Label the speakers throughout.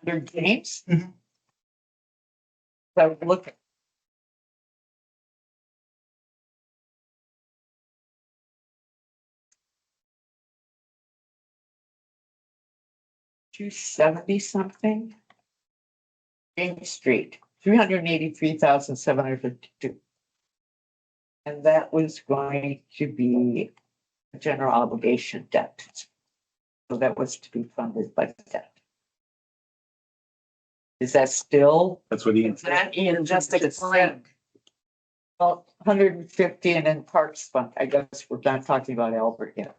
Speaker 1: Under James?
Speaker 2: Mhm.
Speaker 1: So look. Two seventy something? James Street, three hundred and eighty-three thousand seven hundred fifty-two. And that was going to be a general obligation debt. So that was to be funded by debt. Is that still?
Speaker 3: That's what he,
Speaker 1: That in
Speaker 2: just explained.
Speaker 1: Well, hundred and fifty and then parks fund, I guess we're not talking about Albert yet.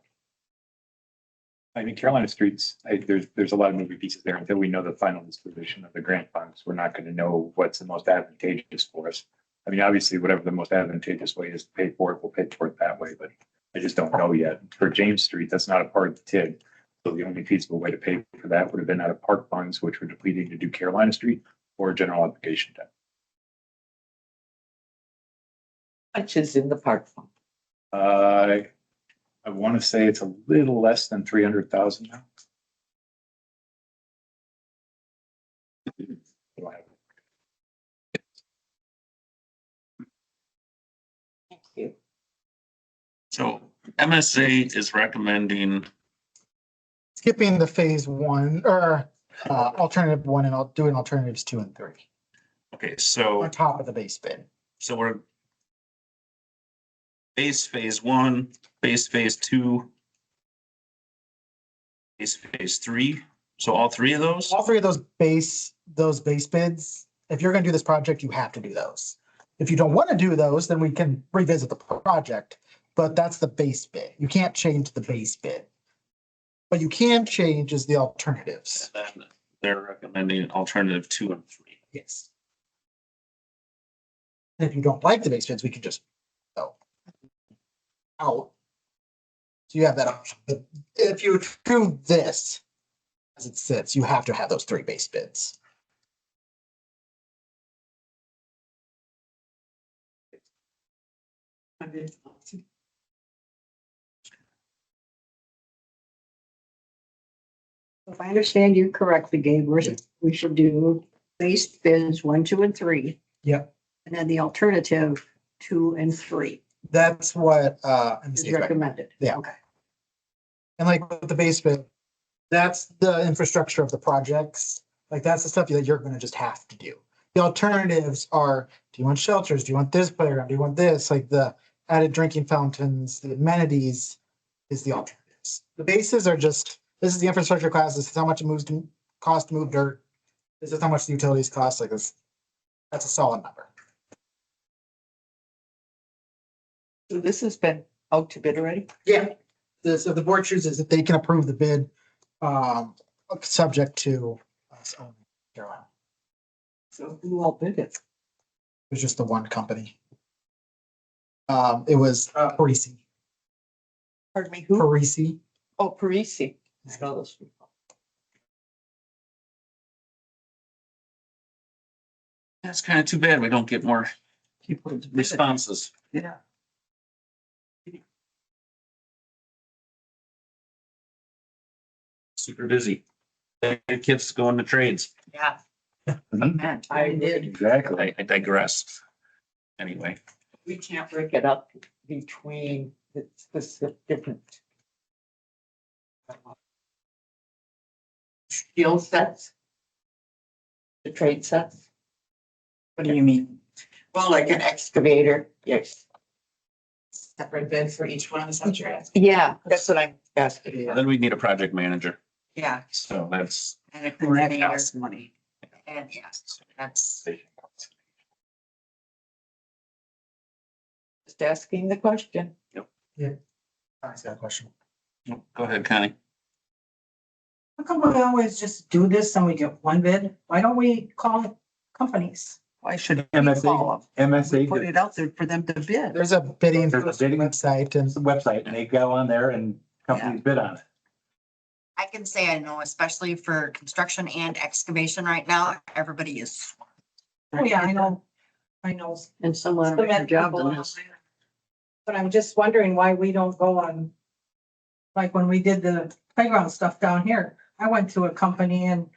Speaker 3: I mean, Carolina Streets, I, there's, there's a lot of moving pieces there until we know the final disposition of the grant funds. We're not gonna know what's the most advantageous for us. I mean, obviously, whatever the most advantageous way is to pay for it, we'll pay for it that way, but I just don't know yet. For James Street, that's not a part of the TID. So the only feasible way to pay for that would have been out of park funds, which were depleted to do Carolina Street or general obligation debt.
Speaker 1: Much is in the park fund.
Speaker 3: Uh, I wanna say it's a little less than three hundred thousand now.
Speaker 1: Thank you.
Speaker 4: So MSA is recommending,
Speaker 2: Skipping the phase one or uh, alternative one and I'll do an alternatives two and three
Speaker 4: okay, so,
Speaker 2: on top of the base bid.
Speaker 4: so we're base phase one, base phase two, base phase three, so all three of those?
Speaker 2: All three of those base, those base bids, if you're gonna do this project, you have to do those. If you don't want to do those, then we can revisit the project, but that's the base bid. You can't change the base bid. What you can change is the alternatives.
Speaker 4: Then They're recommending alternative two and three.
Speaker 2: Yes. And If you don't like the base bids, we can just go out. So you have that option. But if you approve this as it sits, you have to have those three base bids.
Speaker 5: If I understand you correctly, Gabe, we're, we should do base bids one, two, and three.
Speaker 2: Yep.
Speaker 5: And then the alternative, two and three
Speaker 2: That's what uh
Speaker 5: is
Speaker 2: MSD is recommending.
Speaker 5: recommended.
Speaker 2: Yeah.
Speaker 5: Okay.
Speaker 2: And like with the base bid, that's the infrastructure of the projects. Like that's the stuff that you're gonna just have to do. The alternatives are, do you want shelters? Do you want this playground? Do you want this? Like the added drinking fountains, the amenities is the alternatives. The bases are just, this is the infrastructure class, this is how much it moves to, cost to move dirt. This is how much the utilities cost, like this. That's a solid number.
Speaker 1: So this has been out to bid already?
Speaker 2: Yeah. This, if the board chooses, if they can approve the bid, um, subject to us owning Carolina.
Speaker 1: So who all bid it?
Speaker 2: It was just the one company. Um, it was uh, Parisi,
Speaker 1: Pardon me, who?
Speaker 2: Parisi.
Speaker 1: Oh, Parisi. I know those people.
Speaker 4: That's kind of too bad. We don't get more responses.
Speaker 1: Yeah.
Speaker 4: Super busy. The kids going to trades.
Speaker 1: Yeah. I
Speaker 5: I
Speaker 1: did.
Speaker 5: did.
Speaker 3: Exactly.
Speaker 4: I I digress. Anyway,
Speaker 1: We can't break it up between the specific different. Skill sets. The trade sets. What do you mean? Well, like an excavator, yes.
Speaker 6: separate bid for each one, is that what you're asking?
Speaker 1: Yeah, that's what I'm asking.
Speaker 4: then we need a project manager.
Speaker 6: Yeah,
Speaker 4: So that's.
Speaker 6: and a coordinator's money. And yes, that's,
Speaker 1: Just asking the question.
Speaker 2: Sorry, I got a question.
Speaker 4: Go ahead, Connie.
Speaker 6: how come we always just do this and we get one bid? Why don't we call companies?
Speaker 3: Why should
Speaker 6: Call
Speaker 3: MSA,
Speaker 6: them.
Speaker 3: MSA,
Speaker 6: Put
Speaker 3: does
Speaker 6: it out there for them to bid.
Speaker 2: There's a bidding
Speaker 3: There's a bidding-
Speaker 2: website and
Speaker 3: the website and they go on there and companies bid on it.
Speaker 7: I can say I know, especially for construction and excavation right now, everybody is.
Speaker 6: Oh, yeah, I know, I know.
Speaker 5: And someone
Speaker 6: some
Speaker 5: of uh, your job
Speaker 6: people
Speaker 5: on
Speaker 6: out
Speaker 5: this.
Speaker 6: there. But I'm just wondering why we don't go on, like when we did the playground stuff down here, I went to a company and